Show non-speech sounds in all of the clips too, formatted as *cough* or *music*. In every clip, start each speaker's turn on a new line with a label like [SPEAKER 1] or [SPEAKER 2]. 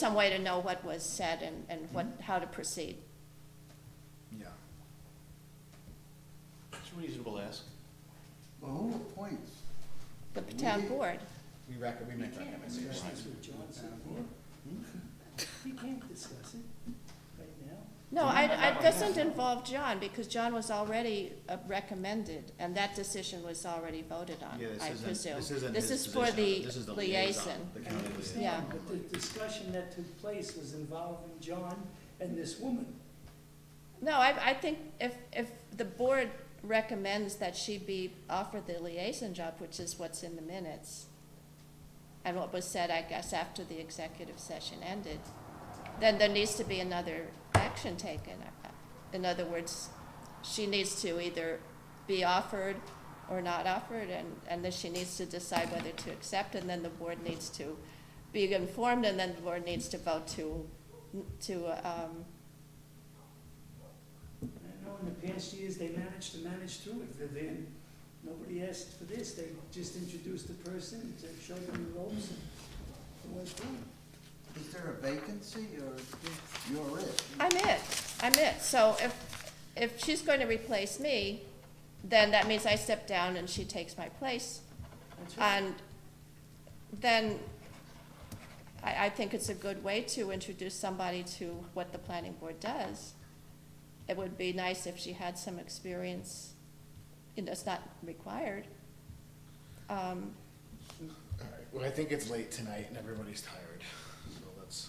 [SPEAKER 1] some way to know what was said and, and what,
[SPEAKER 2] Mm-hmm.
[SPEAKER 1] how to proceed.
[SPEAKER 3] Yeah.
[SPEAKER 2] It's reasonable to ask.
[SPEAKER 3] Well, who appoints?
[SPEAKER 1] The town board,
[SPEAKER 3] We record, we make recommendations.
[SPEAKER 4] We can't discuss it right now.
[SPEAKER 1] no, I, I, doesn't involve John, because John was already uh, recommended, and that decision was already voted on,
[SPEAKER 2] Yeah, this
[SPEAKER 1] I
[SPEAKER 2] isn't-
[SPEAKER 1] presume.
[SPEAKER 2] this isn't his
[SPEAKER 1] for
[SPEAKER 2] position.
[SPEAKER 1] the
[SPEAKER 2] This is the
[SPEAKER 1] liaison.
[SPEAKER 2] liaison, the
[SPEAKER 4] I
[SPEAKER 2] county liaison.
[SPEAKER 1] Yeah.
[SPEAKER 4] understand, but the discussion that took place was involving John and this woman.
[SPEAKER 1] No, I, I think if, if the board recommends that she be offered the liaison job, which is what's in the minutes, and what was said, I guess, after the executive session ended, then there needs to be another action taken. In other words, she needs to either be offered or not offered, and, and then she needs to decide whether to accept, and then the board needs to be informed, and then the board needs to vote to, to, um,
[SPEAKER 4] I know in the past years, they managed to manage through it, Vivian. Nobody asked for this, they just introduced the person, they showed them the ropes, and it went through.
[SPEAKER 3] Is there a vacancy or you're it?
[SPEAKER 1] I'm it, I'm it. So if, if she's going to replace me, then that means I step down and she takes my place.
[SPEAKER 4] That's right.
[SPEAKER 1] And then I, I think it's a good way to introduce somebody to what the planning board does. It would be nice if she had some experience, you know, it's not required. Um,
[SPEAKER 5] All right, well, I think it's late tonight and everybody's tired, so let's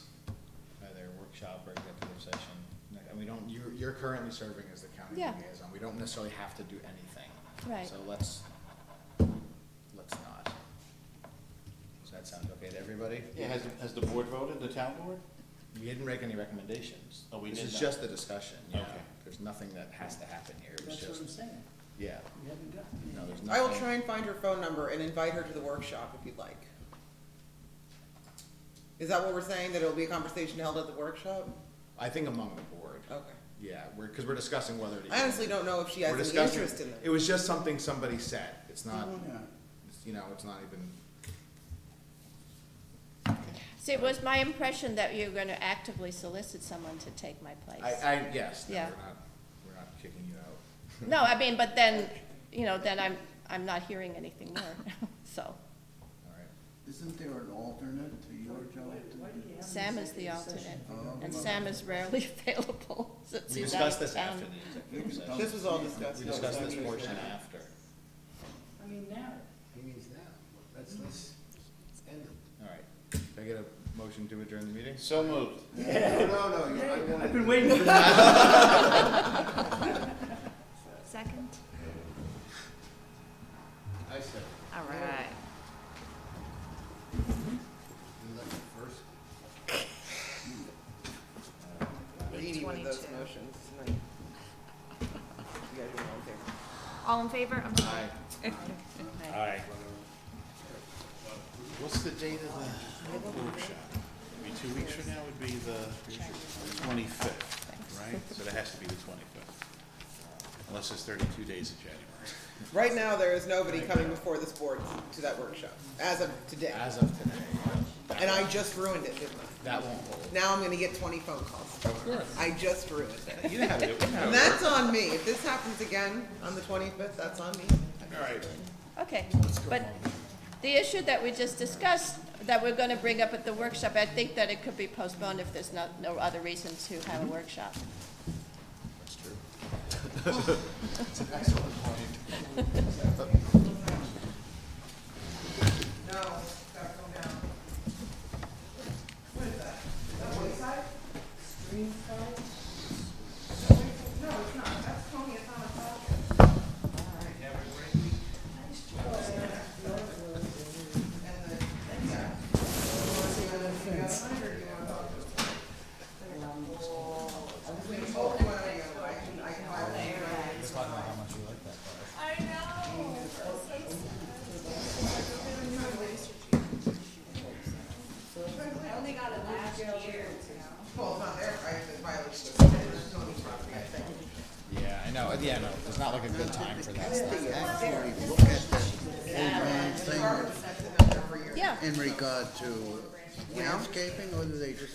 [SPEAKER 2] Either workshop or executive session.
[SPEAKER 5] And we don't, you're, you're currently serving as the county
[SPEAKER 1] Yeah.
[SPEAKER 5] liaison, we don't necessarily have to do anything.
[SPEAKER 1] Right.
[SPEAKER 5] So let's, let's not. Does that sound okay to everybody?
[SPEAKER 2] Yeah, has, has the board voted, the town board?
[SPEAKER 5] We didn't make any recommendations.
[SPEAKER 2] Oh, we
[SPEAKER 5] This
[SPEAKER 2] did
[SPEAKER 5] is
[SPEAKER 2] not.
[SPEAKER 5] just a discussion, yeah,
[SPEAKER 2] Okay.
[SPEAKER 5] there's nothing that has to happen here, it was
[SPEAKER 4] That's what I'm
[SPEAKER 5] just,
[SPEAKER 4] saying,
[SPEAKER 5] yeah,
[SPEAKER 4] we haven't gotten it.
[SPEAKER 5] no, there's nothing.
[SPEAKER 6] I will try and find her phone number and invite her to the workshop if you'd like. Is that what we're saying, that it'll be a conversation held at the workshop?
[SPEAKER 5] I think among the board,
[SPEAKER 6] Okay.
[SPEAKER 5] yeah, we're, cause we're discussing whether to.
[SPEAKER 6] I honestly don't know if she has
[SPEAKER 5] We're
[SPEAKER 6] any
[SPEAKER 5] discussing-
[SPEAKER 6] interest in
[SPEAKER 5] It
[SPEAKER 6] it.
[SPEAKER 5] was just something somebody said, it's not,
[SPEAKER 3] Oh, Yeah.
[SPEAKER 5] it's, you know, it's not even
[SPEAKER 1] See, it was my impression that you're gonna actively solicit someone to take my place.
[SPEAKER 5] I, I, yes, no, we're
[SPEAKER 1] Yeah.
[SPEAKER 5] not, we're not kicking you out. *laughs*
[SPEAKER 1] No, I mean, but then, you know, then I'm, I'm not hearing anything more, *laughs* so.
[SPEAKER 5] All right.
[SPEAKER 3] Isn't there an alternate to your job? Oh,
[SPEAKER 4] Why- why do you have an
[SPEAKER 1] Sam is the
[SPEAKER 4] executive
[SPEAKER 1] alternate,
[SPEAKER 4] session?
[SPEAKER 1] and Sam is rarely *laughs* available since
[SPEAKER 2] We
[SPEAKER 1] he's out of
[SPEAKER 2] discussed this after
[SPEAKER 1] town.
[SPEAKER 2] the executive
[SPEAKER 3] This
[SPEAKER 2] session.
[SPEAKER 6] This was all discussed.
[SPEAKER 2] We discussed this
[SPEAKER 6] Okay.
[SPEAKER 2] portion after.
[SPEAKER 4] I mean, now,
[SPEAKER 3] He means now. That's, that's, it's ended.
[SPEAKER 5] All right. Can I get a motion to adjourn the meeting?
[SPEAKER 2] So moved.
[SPEAKER 3] *laughs* No, no, no, you- I wanted.
[SPEAKER 4] I've been waiting for that.
[SPEAKER 7] Second?
[SPEAKER 3] I said,
[SPEAKER 7] All right.
[SPEAKER 3] you left it first.
[SPEAKER 6] Leading with those
[SPEAKER 7] 22.
[SPEAKER 6] motions tonight. You guys are all there.
[SPEAKER 7] All in favor? I'm sorry.
[SPEAKER 5] Aye.
[SPEAKER 2] Aye. What's the date of the workshop? Maybe two weeks from now would be the twenty-fifth, right? So that has to be the twenty-fifth. Unless it's thirty-two days of January.
[SPEAKER 6] Right now, there is nobody coming before this board to that workshop, as of today.
[SPEAKER 5] As of today,
[SPEAKER 6] And I just ruined it, didn't I?
[SPEAKER 5] that won't hold.
[SPEAKER 6] Now I'm gonna get twenty phone calls.
[SPEAKER 5] Of course.
[SPEAKER 6] I just ruined it.
[SPEAKER 5] You didn't have it. you didn't have
[SPEAKER 6] And
[SPEAKER 5] it.
[SPEAKER 6] that's on me. If this happens again on the twenty-fifth, that's on me.
[SPEAKER 2] All right.
[SPEAKER 1] Okay, but the issue that we just discussed, that we're gonna bring up at the workshop, I think that it could be postponed if there's not, no other reason to have a workshop.
[SPEAKER 5] That's true.
[SPEAKER 6] No, gotta come down. Well, it's not there, I have to violate the there's no need property, I think.
[SPEAKER 5] Yeah, I know. Yeah, no, it's not like a good time for that stuff.
[SPEAKER 3] Actually, look at the overall
[SPEAKER 6] Department
[SPEAKER 3] thing
[SPEAKER 6] sets it up every year.
[SPEAKER 1] Yeah.
[SPEAKER 3] in regard to landscaping, or do they just